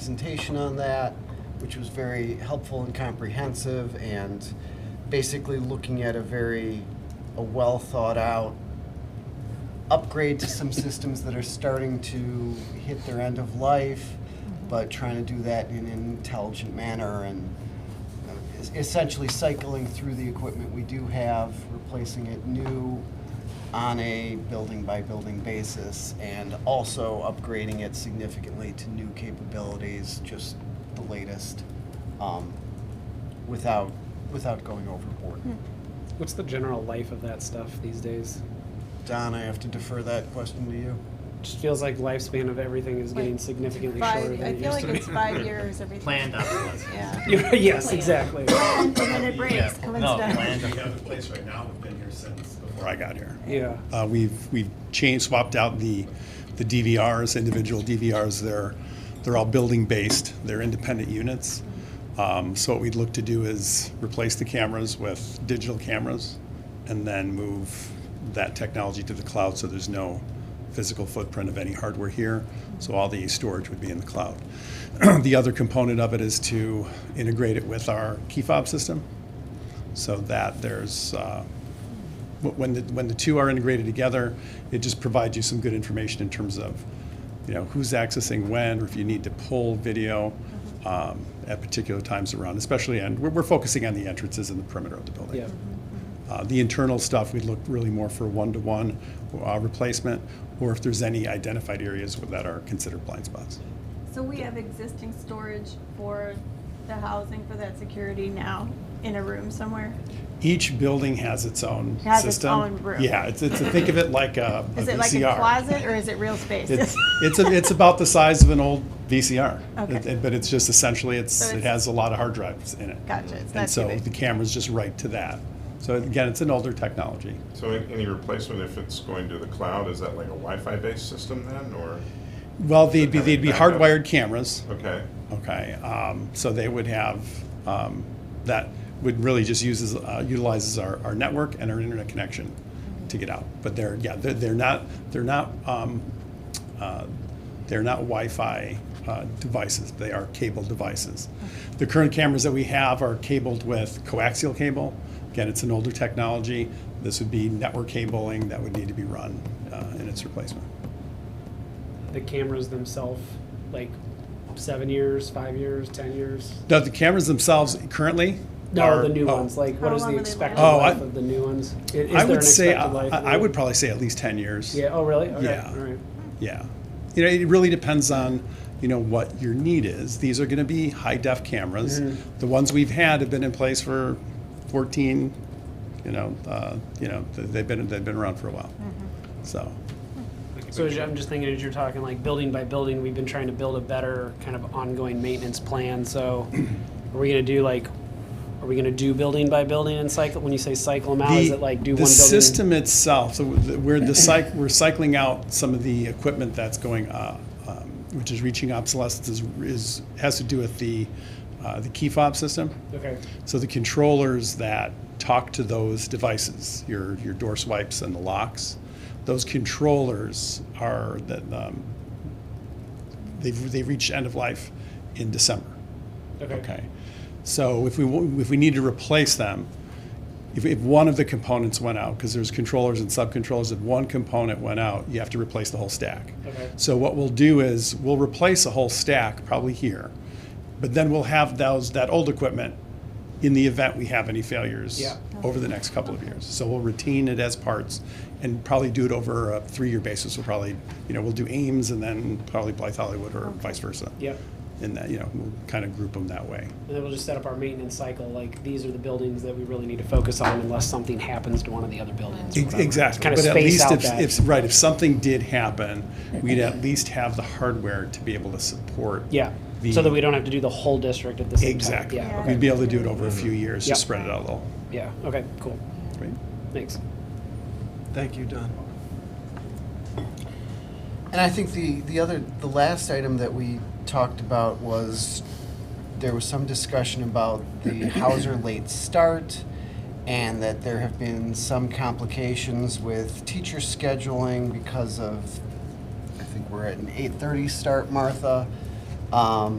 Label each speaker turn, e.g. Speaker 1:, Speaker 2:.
Speaker 1: presentation on that, which was very helpful and comprehensive, and basically looking at a very, a well-thought-out upgrade to some systems that are starting to hit their end of life, but trying to do that in an intelligent manner and uh, es- essentially cycling through the equipment we do have, replacing it new on a building-by-building basis, and also upgrading it significantly to new capabilities, just the latest, um, without, without going overboard.
Speaker 2: What's the general life of that stuff these days?
Speaker 1: Don, I have to defer that question to you.
Speaker 2: Just feels like lifespan of everything is getting
Speaker 3: Like
Speaker 2: significantly shorter
Speaker 3: Five,
Speaker 2: than
Speaker 3: I
Speaker 2: it
Speaker 3: feel
Speaker 2: used
Speaker 3: like
Speaker 2: to be.
Speaker 3: it's five years, everything.
Speaker 4: Planned obsolescence.
Speaker 3: Yeah.
Speaker 2: yes,
Speaker 3: Plan.
Speaker 2: exactly.
Speaker 3: And then it breaks, comes
Speaker 4: No,
Speaker 3: down.
Speaker 4: planned.
Speaker 5: We have a place right now, we've been here since before I got here.
Speaker 2: Yeah.
Speaker 5: Uh, we've, we've changed, swapped out the, the DVRs, individual DVRs, they're, they're all building-based, they're independent units. Um, so what we'd look to do is replace the cameras with digital cameras and then move that technology to the cloud so there's no physical footprint of any hardware here, so all the storage would be in the cloud. The other component of it is to integrate it with our key fob system, so that there's, uh, wh- when the, when the two are integrated together, it just provides you some good information in terms of, you know, who's accessing when, or if you need to pull video
Speaker 3: Mm-hmm.
Speaker 5: um, at particular times around, especially, and we're, we're focusing on the entrances and the perimeter of the building.
Speaker 2: Yeah.
Speaker 3: Mm-hmm.
Speaker 5: Uh, The internal stuff, we'd look really more for one-to-one uh, replacement, or if there's any identified areas that are considered blind spots.
Speaker 3: So we have existing storage for the housing for that security now in a room somewhere?
Speaker 5: Each building has its own system.
Speaker 3: Has its own room.
Speaker 5: Yeah, it's, it's, think of it like a a VCR.
Speaker 3: Is it like a closet or is it real space?
Speaker 5: It's, it's, a- it's about the size of an old VCR.
Speaker 3: Okay.
Speaker 5: It- it- But it's just essentially, it's,
Speaker 3: So
Speaker 5: it
Speaker 3: it's-
Speaker 5: has a lot of hard drives in it.
Speaker 3: Gotcha, it's not
Speaker 5: And
Speaker 3: too
Speaker 5: so the
Speaker 3: big.
Speaker 5: camera's just right to that. So again, it's an older technology.
Speaker 6: So an- any replacement, if it's going to the cloud, is that like a Wi-Fi based system then, or,
Speaker 5: Well, they'd be,
Speaker 6: Have it
Speaker 5: they'd be
Speaker 6: backed up.
Speaker 5: hardwired cameras,
Speaker 6: okay,
Speaker 5: okay? um, So they would have, um, that would really just uses, uh, utilizes our, our network and our internet connection to get out. But they're, yeah, they're, they're not, they're not, um, uh, they're not Wi-Fi uh, devices, they are cable devices. The current cameras that we have are cabled with coaxial cable. Again, it's an older technology. This would be network cabling that would need to be run uh, in its replacement.
Speaker 2: The cameras themselves, like seven years, five years, ten years.
Speaker 5: Now, the cameras themselves currently?
Speaker 2: No,
Speaker 5: are-
Speaker 2: the new
Speaker 5: oh.
Speaker 2: ones. Like, what
Speaker 3: How
Speaker 2: is
Speaker 3: long
Speaker 2: the
Speaker 3: will they
Speaker 2: expected
Speaker 5: last? Oh,
Speaker 2: life
Speaker 5: I-
Speaker 2: of the new ones? I- Is,
Speaker 5: I
Speaker 2: there an
Speaker 5: would say, I,
Speaker 2: expected life?
Speaker 5: I- I would probably say at least 10 years.
Speaker 2: Yeah. Oh, really? Okay,
Speaker 5: Yeah.
Speaker 2: All right.
Speaker 5: Yeah. You know, it really depends on, you know, what your need is. These are going to be high def cameras.
Speaker 2: Mm-hmm.
Speaker 5: The ones we've had have been in place for 14, you know, uh, you know, th- they've been, they've been around for a while.
Speaker 2: Mm-hmm.
Speaker 5: So,
Speaker 2: So as you- I'm just thinking as you're talking like building by building, we've been trying to build a better kind of ongoing maintenance plan. So are we gonna do like, are we gonna do building by building and cycle? When you say cycle them out, is
Speaker 5: The-
Speaker 2: it like do one
Speaker 5: The
Speaker 2: building?
Speaker 5: system itself, so the- we're the cyc, we're cycling out some of the equipment that's going, uh, um, which is reaching obsolescence is, is, has to do with the, uh, the key fob system.
Speaker 2: Okay,
Speaker 5: So the controllers that talk to those devices, your, your door swipes and the locks, those controllers are, that, um, they've, they reached end of life in December.
Speaker 2: okay.
Speaker 5: Okay. So if we, wa- if we need to replace them, if, if one of the components went out, because there's controllers and subcontrollers, if one component went out, you have to replace the whole stack.
Speaker 2: Okay.
Speaker 5: So what we'll do is, we'll replace a whole stack, probably here, but then we'll have those, that old equipment in the event we have any failures
Speaker 2: Yeah.
Speaker 5: over the next couple of years. So we'll retain it as parts and probably do it over a three-year basis. We'll probably, you know, we'll do Ames and then probably Blythe Hollywood or vice versa.
Speaker 2: Yep.
Speaker 5: In that, you know, we'll kind of group them that way.
Speaker 2: And then we'll just set up our maintenance cycle, like these are the buildings that we really need to focus on unless something happens to one of the other buildings. or
Speaker 5: Ex-
Speaker 2: whatever.
Speaker 5: Exactly.
Speaker 2: Kind of
Speaker 5: but at
Speaker 2: space
Speaker 5: least
Speaker 2: out
Speaker 5: if,
Speaker 2: that.
Speaker 5: if right, if something did happen, we'd at least have the hardware to be able to support.
Speaker 2: Yeah,
Speaker 5: the-
Speaker 2: so that we don't have to do the whole district at the same time.
Speaker 5: Exactly.
Speaker 2: Yeah,
Speaker 5: We'd
Speaker 2: okay,
Speaker 5: be able to do it over a few years,
Speaker 2: Yep.
Speaker 5: just spread it out a little.
Speaker 2: yeah, okay, cool,
Speaker 5: Right?
Speaker 2: thanks.
Speaker 1: Thank you, Don. And I think the, the other, the last item that we talked about was, there was some discussion about the Hauser late start, and that there have been some complications with teacher scheduling because of, I think we're at an eight-thirty start, Martha. Um,